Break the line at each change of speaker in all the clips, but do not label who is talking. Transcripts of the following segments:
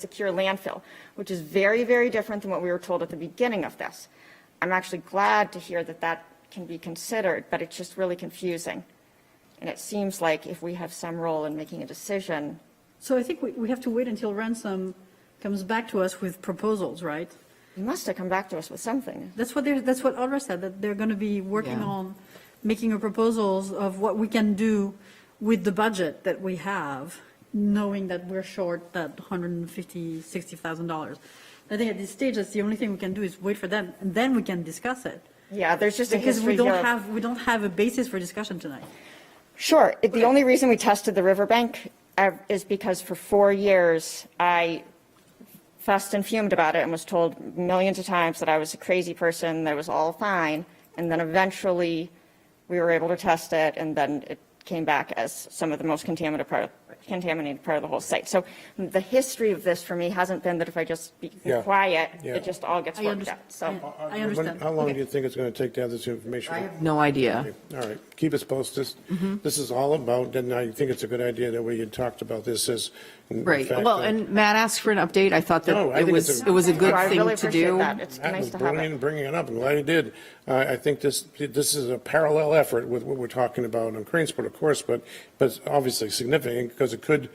secure landfill, which is very, very different than what we were told at the beginning of this. I'm actually glad to hear that that can be considered, but it's just really confusing. And it seems like if we have some role in making a decision,
So I think we, we have to wait until Ransom comes back to us with proposals, right?
you must have come back to us with something.
That's what they're, that's what Audra said, that they're going to be working
Yeah.
on making a proposals of what we can do with the budget that we have, knowing that we're short that 150, 60,000 dollars. I think at this stage, that's the only thing we can do is wait for them, and then we can discuss it.
Yeah, there's just a
Because we
history
don't
here. of-
have, we don't have a basis for discussion tonight.
Sure, it- the only reason we tested the riverbank uh, is because for four years, I fussed and fumed about it and was told millions of times that I was a crazy person, that it was all fine. And then eventually, we were able to test it, and then it came back as some of the most contaminated part, contaminated part of the whole site. So the history of this for me hasn't been that if I just be
Yeah.
quiet,
Yeah.
it just all gets
I
worked out.
understand.
So,
I
When-
understand.
How long do you think it's going to take to have this information?
No idea.
All right, keep us posted. This is all about, and I think it's a good idea that we had talked about this as. in
Right.
fact,
Well,
uh,
and Matt asked for an update. I thought
No, I
that it
think it's
was,
a-
it was a good
So I really
thing to
appreciate
do.
that. It's
That was
nice to have
brilliant
it.
Bringing it up, I'm glad he did. I, I think this, this is a parallel effort with what we're talking about on Cranesport, of course, but, but it's obviously significant because it could,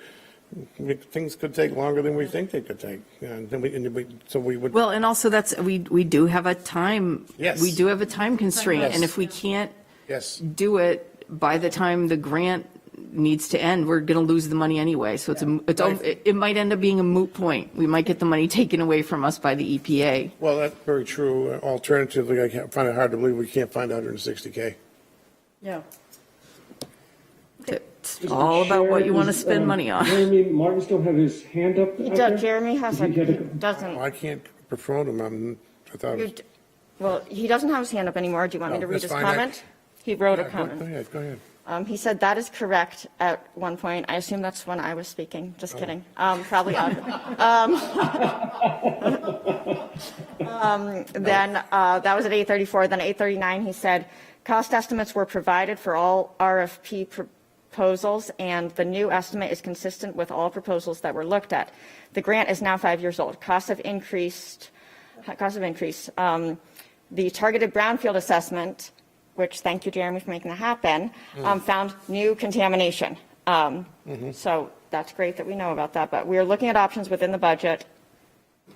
things could take longer than we think they could take. And then we, and we, so we would.
Well, and also that's, we, we do have a time.
Yes.
We do have a time constraint. And
Yes.
if we can't
Yes.
do it by the time the grant needs to end, we're going to lose the money anyway. So it's, a- it's, all- it it might end up being a moot point. We might get the money taken away from us by the E EPA.
Well, that's very true. Alternatively, I can't, find it hard to believe we can't find 160K.
Yeah.
It's all about what you want to
Chair,
spend
um,
money on.
Jeremy Martin still have his hand up. out there?
Doug, Jeremy has a,
He had a-
doesn't,
Well, I can't perform them, I'm, I thought.
You d- Well, he doesn't have his hand up anymore. Do you want me
No,
to read
that's
his
fine. I-
comment? He wrote
Yeah,
a
go- Go
comment.
ahead, go ahead.
Um, He said, "That is correct," at one point. I assume that's when I was speaking.
Oh.
Just kidding. Um, Probably Audra. Um, um, Then, uh, that was at 8:34. Then 8:39, he said, "Cost estimates were provided for all RFP proposals, and the new estimate is consistent with all proposals that were looked at. The grant is now five years old. Costs have increased cost of increase. Um, The targeted brownfield assessment, which, thank you, Jeremy, for making that happen, um, found new contamination. Um, So that's great that we know about that, but we are looking at options within the budget.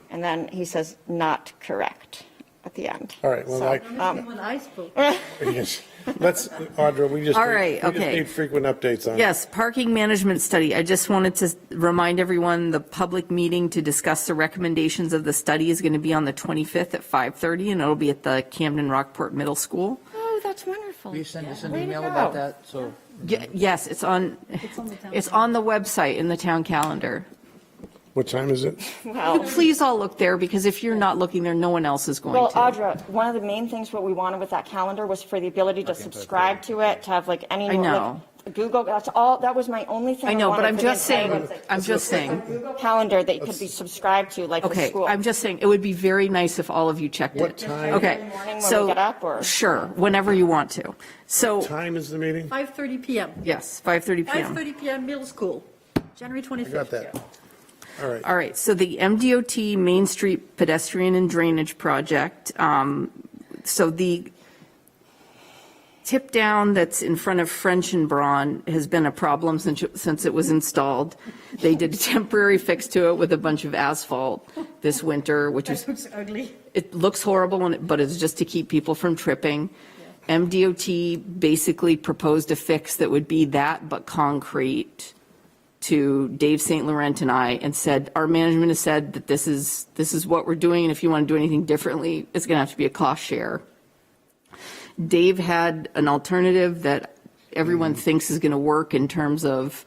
And then he says, not correct at the end.
All right, well,
So, um,
like,
When I spoke.
er
yes. let's, Audra, we just.
All
need-
right,
We just
okay.
need frequent updates on. it.
Yes, parking management study. I just wanted to remind everyone, the public meeting to discuss the recommendations of the study is going to be on the 25th at 5:30, and it'll be at the Camden Rockport Middle School.
Oh, that's wonderful.
Will you send us an
Way to
email
go.
about that? So
Ye- Yes, it's
on
on,
the town
it's on the website in the town calendar. Oh,
What time is it?
Well,
Please all look there, because if you're not looking there, no one else is going
Well,
to.
Audra, one of the main things what we wanted with that calendar was for the ability to subscribe to it, to have like any.
I know.
like, Google, that's all, that was my only thing.
I know, but
wanted
I'm
for the
just
entire
saying,
website.
I'm just saying,
Google Calendar that you could be subscribed to, like the
okay,
school.
I'm just saying, it would be very nice if all of you checked it.
What time-
Okay,
Morning when we
so,
get up, or-
sure, whenever you want to. So,
Time is the meeting?
5:30 PM.
yes, 5:30 PM.
5:30 PM, middle school, January 25th.
I got that. All right.
All right, so the MDOT Main Street Pedestrian and Drainage Project, um, so the tip down that's in front of French and Braun has been a problem since, since it was installed. They did a temporary fix to it with a bunch of asphalt this winter, which is
That looks ugly.
it looks horrible, and- but it's just to keep people from tripping. MDOT basically proposed a fix that would be that but concrete to Dave St. Laurent and I and said, our management has said that this is, this is what we're doing, and if you want to do anything differently, it's going to have to be a cost share. Dave had an alternative that everyone thinks is going to work in terms of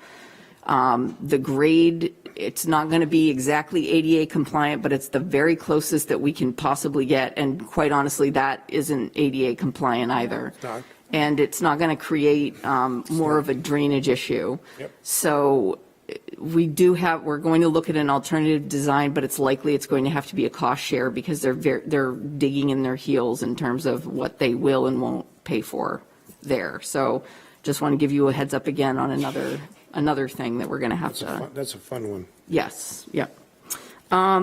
um, the grade. It's not going to be exactly ADA compliant, but it's the very closest that we can possibly get. And quite honestly, that isn't ADA compliant either.
not.
And it's not going to create um, more of a drainage issue.
Yep.
So eh, we do have, we're going to look at an alternative design, but it's likely it's going to have to be a cost share because they're, ver- they're digging in their heels in terms of what they will and won't pay for there. So just want to give you a heads up again on another, another thing that we're going to have
That's a
to,
fun- That's a fun one.
yes, yep. Um,